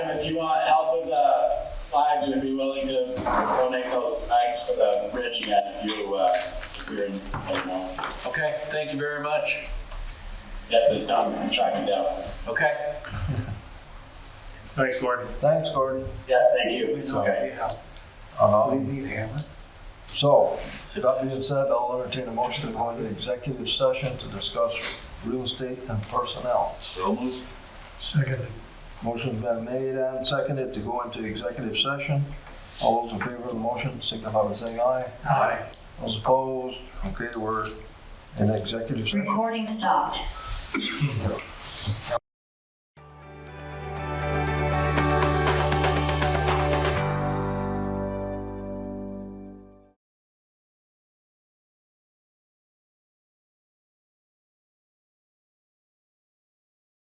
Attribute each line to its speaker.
Speaker 1: if you want help with the flags, we'd be willing to donate those flags for the bridge again if you, uh, if you're in, you know,
Speaker 2: Okay, thank you very much.
Speaker 1: get this done and track it down.
Speaker 2: Okay.
Speaker 3: Thanks, Gordon.
Speaker 4: Thanks, Gordon.
Speaker 1: Yeah, thank you. Okay.
Speaker 4: Um, So, that being said, I'll entertain a motion to go into executive session to discuss real estate and personnel.
Speaker 5: So moved.
Speaker 3: Second.
Speaker 4: Motion's been made and seconded to go into executive session. All those in favor of the motion signify by saying aye.
Speaker 3: Aye.
Speaker 4: Those opposed? Okay, we're in executive session.
Speaker 6: Recording stopped.